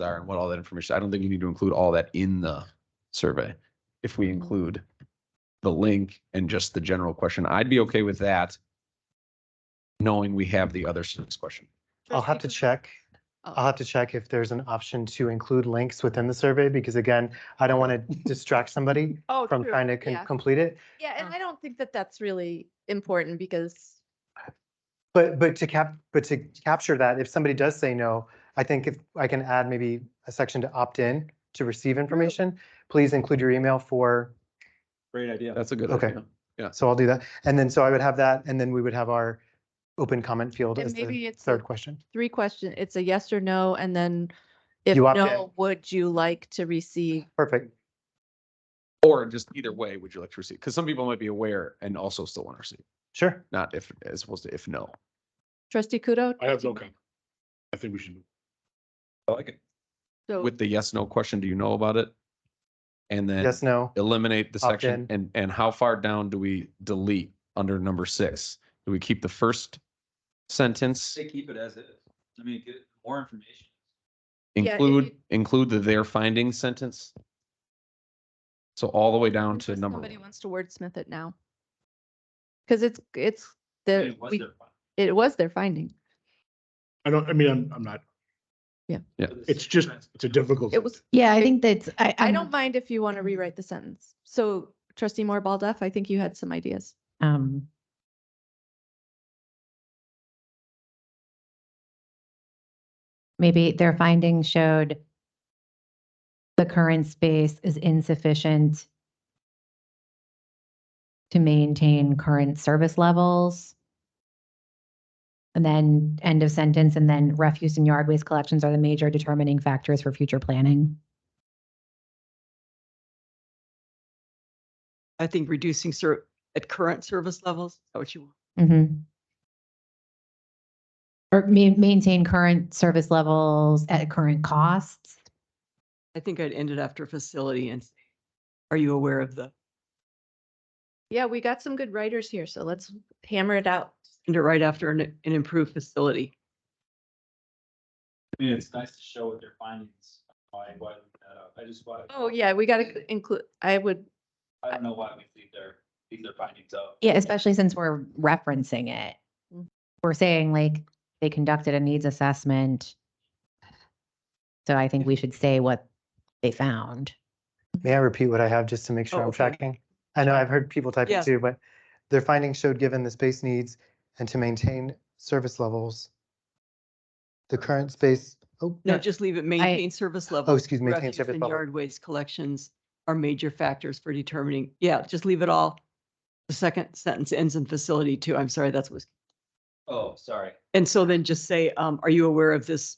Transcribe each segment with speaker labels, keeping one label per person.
Speaker 1: are and what all that information, I don't think you need to include all that in the survey. If
Speaker 2: Mm-hmm.
Speaker 1: we include the link and just the general question, I'd be okay with that. Knowing we have the other six question.
Speaker 3: I'll have to check.
Speaker 4: oh,
Speaker 3: I'll have to check if there's an option to include links within the survey, because again, I don't want to distract somebody
Speaker 4: Oh,
Speaker 3: from
Speaker 4: true.
Speaker 3: trying to con-
Speaker 4: Yeah.
Speaker 3: complete it.
Speaker 4: Yeah, and
Speaker 3: uh,
Speaker 4: I don't think that that's really important because,
Speaker 3: But, but to cap, but to capture that, if somebody does say no, I think if I can add maybe a section to opt in to receive information, please include your email for,
Speaker 2: Great idea.
Speaker 1: That's a good
Speaker 3: Okay.
Speaker 1: idea.
Speaker 3: so I'll do that. And then, so I would have that, and then we would have our open comment field
Speaker 4: And
Speaker 3: as
Speaker 4: maybe
Speaker 3: the
Speaker 4: it's a-
Speaker 3: third question.
Speaker 4: three question, it's a yes or no, and then if
Speaker 3: You opt in.
Speaker 4: no, would you like to receive?
Speaker 3: Perfect.
Speaker 1: Or just either way, would you like to receive? Because some people might be aware and also still want to receive,
Speaker 3: Sure.
Speaker 1: not if, as opposed to if no.
Speaker 4: Trustee Kudo?
Speaker 5: I have no comment. I think we should.
Speaker 1: I like it.
Speaker 2: Oh.
Speaker 4: So-
Speaker 1: With the yes, no question, do you know about it? And then
Speaker 3: Yes, no.
Speaker 1: eliminate the
Speaker 3: Opt
Speaker 1: section
Speaker 3: in.
Speaker 1: and, and how far down do we delete under number six? Do we keep the first sentence,
Speaker 2: Say keep it as is. I mean, get more information.
Speaker 4: Yeah, it-
Speaker 1: include,
Speaker 4: it-
Speaker 1: include the their findings sentence? So all the way down to
Speaker 4: Unless
Speaker 1: number,
Speaker 4: Somebody
Speaker 1: one.
Speaker 4: wants to wordsmith it now. Because it's, it's, the,
Speaker 2: It was
Speaker 4: we-
Speaker 2: their fault.
Speaker 4: it was their finding.
Speaker 5: I don't, I mean, I'm, I'm not, it's just, it's a difficult.
Speaker 4: It was,
Speaker 6: Yeah, I think that's, I,
Speaker 4: I
Speaker 6: I'm-
Speaker 4: don't mind if you want to rewrite the sentence. So trustee Moore Baldoff, I think you had some ideas.
Speaker 6: um. Maybe their findings showed the current space is insufficient to maintain current service levels. And then end of sentence, and then refuse and yard waste collections are the major determining factors for future planning.
Speaker 7: I think reducing ser, at current service levels, is that what you want?
Speaker 6: Mm-hmm. Or ma- maintain current service levels at current costs.
Speaker 7: I think I'd end it after facility and say, are you aware of the,
Speaker 4: Yeah, we got some good writers here, so let's hammer it out.
Speaker 7: end it right after an, an improved facility.
Speaker 2: I mean, it's nice to show what their findings, why, why, uh, I just, why.
Speaker 4: Oh, yeah, we got to include, I would,
Speaker 2: I don't know why we leave their, leave their findings out.
Speaker 6: Yeah, Mm-hmm. especially since we're referencing it.
Speaker 4: Mhm.
Speaker 6: We're saying like they conducted a needs assessment. So I think we should say what they found.
Speaker 3: May I repeat what I have just to make sure
Speaker 7: Oh,
Speaker 3: I'm
Speaker 7: okay.
Speaker 3: tracking? I know I've heard people type
Speaker 7: Yeah.
Speaker 3: it too, but their findings showed given the space needs and to maintain service levels. The current space, oh,
Speaker 7: No, just leave it, maintain service levels.
Speaker 3: excuse me, Oh, maintain
Speaker 7: refuse
Speaker 3: service
Speaker 7: and
Speaker 3: level.
Speaker 7: Yard waste collections are major factors for determining, yeah, just leave it all. The second sentence ends in facility too. I'm sorry, that's what,
Speaker 2: Oh, sorry.
Speaker 7: and so then just say, um, are you aware of this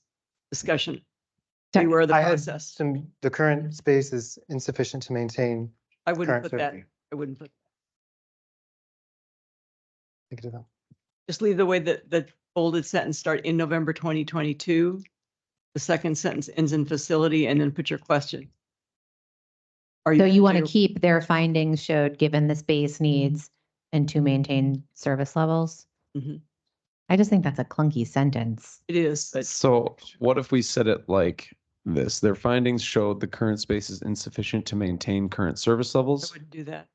Speaker 7: discussion? Are you
Speaker 6: Sorry,
Speaker 7: aware of the
Speaker 3: I had
Speaker 7: process?
Speaker 3: some, the current space is insufficient to maintain.
Speaker 7: I
Speaker 3: current
Speaker 7: wouldn't put that,
Speaker 3: service.
Speaker 7: I wouldn't put,
Speaker 3: Think of that.
Speaker 7: just leave the way that the bolded sentence start in November twenty twenty-two. The second sentence ends in facility and then put your question. Are
Speaker 6: So you Mm-hmm. want to
Speaker 7: you're-
Speaker 6: keep their findings showed given the space needs and to maintain service levels?
Speaker 7: Mhm.
Speaker 6: I just think that's a clunky sentence.
Speaker 7: It is, but
Speaker 1: So what if we said it like this? Their findings showed the current space is insufficient to maintain current service
Speaker 7: I
Speaker 1: levels.
Speaker 7: wouldn't do that.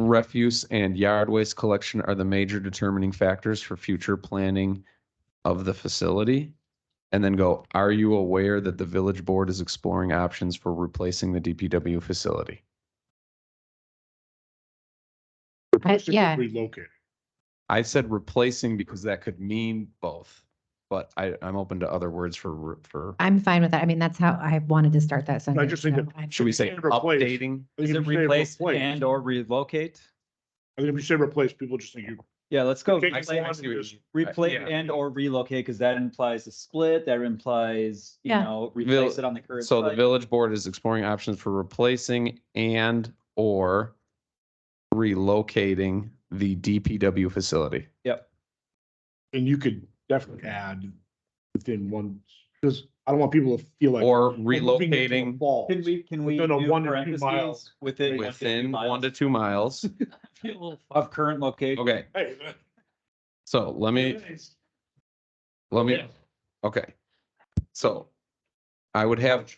Speaker 1: refuse and yard waste collection are the major determining factors for future planning of the facility? And then go, are you aware that the village board is exploring options for replacing the DPW facility?
Speaker 6: I-
Speaker 5: Proposed to
Speaker 6: yeah.
Speaker 5: Relocate.
Speaker 1: I said replacing because that could mean both, but I, I'm open to other words for, re- for,
Speaker 6: I'm fine with that. I mean, that's how I wanted to start that sentence.
Speaker 5: just think
Speaker 6: so
Speaker 5: that-
Speaker 6: I-
Speaker 1: should we say
Speaker 5: And replace.
Speaker 1: updating?
Speaker 5: I think
Speaker 2: Is
Speaker 5: if
Speaker 2: it
Speaker 5: you say
Speaker 2: replace and or relocate?
Speaker 5: I think if you say replace, people just think you,
Speaker 2: Yeah, let's go.
Speaker 5: Okay,
Speaker 1: I see- I
Speaker 2: replace-
Speaker 1: see what you mean.
Speaker 2: Replace
Speaker 1: Yeah.
Speaker 2: and or relocate, because that implies a split, that implies, you
Speaker 6: Yeah.
Speaker 2: know, replace it on the current.
Speaker 1: So the
Speaker 2: site.
Speaker 1: village board is exploring options for replacing and or relocating the DPW facility.
Speaker 5: and you could definitely add within one, because I don't want people to feel like.
Speaker 1: Or
Speaker 5: we're moving it to a
Speaker 1: relocating
Speaker 5: ball.
Speaker 2: Can we, can we?
Speaker 5: Within a
Speaker 2: do
Speaker 5: one to two
Speaker 2: parentheses
Speaker 5: miles
Speaker 2: Within. one to two
Speaker 1: Within one to
Speaker 2: miles
Speaker 1: two miles.
Speaker 2: Of current location.
Speaker 1: Okay,
Speaker 5: Hey,
Speaker 1: so let me, let me, okay. So I would have